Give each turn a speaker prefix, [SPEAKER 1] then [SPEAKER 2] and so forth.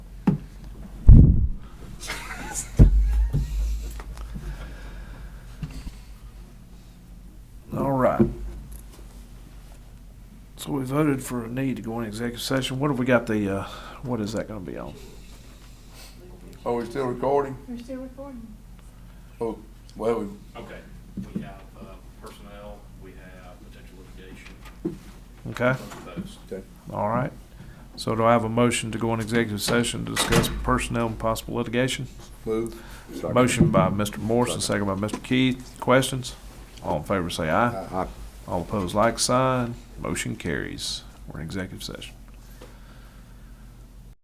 [SPEAKER 1] So we voted for a need to go in executive session. What have we got the, uh, what is that gonna be on?
[SPEAKER 2] Are we still recording?
[SPEAKER 3] We're still recording.
[SPEAKER 2] Oh, well, we,
[SPEAKER 4] Okay, we have uh, personnel, we have potential litigation,
[SPEAKER 1] Okay,
[SPEAKER 4] both of those.
[SPEAKER 2] okay.
[SPEAKER 1] all right. So do I have a motion to go in executive session to discuss personnel and possible litigation?
[SPEAKER 2] move.
[SPEAKER 1] Motion by Mr. Morrison, second by Mr. Keith. Questions? All in favor say aye.
[SPEAKER 2] Aye.
[SPEAKER 1] All opposed, like sign. Motion carries. We're in executive session.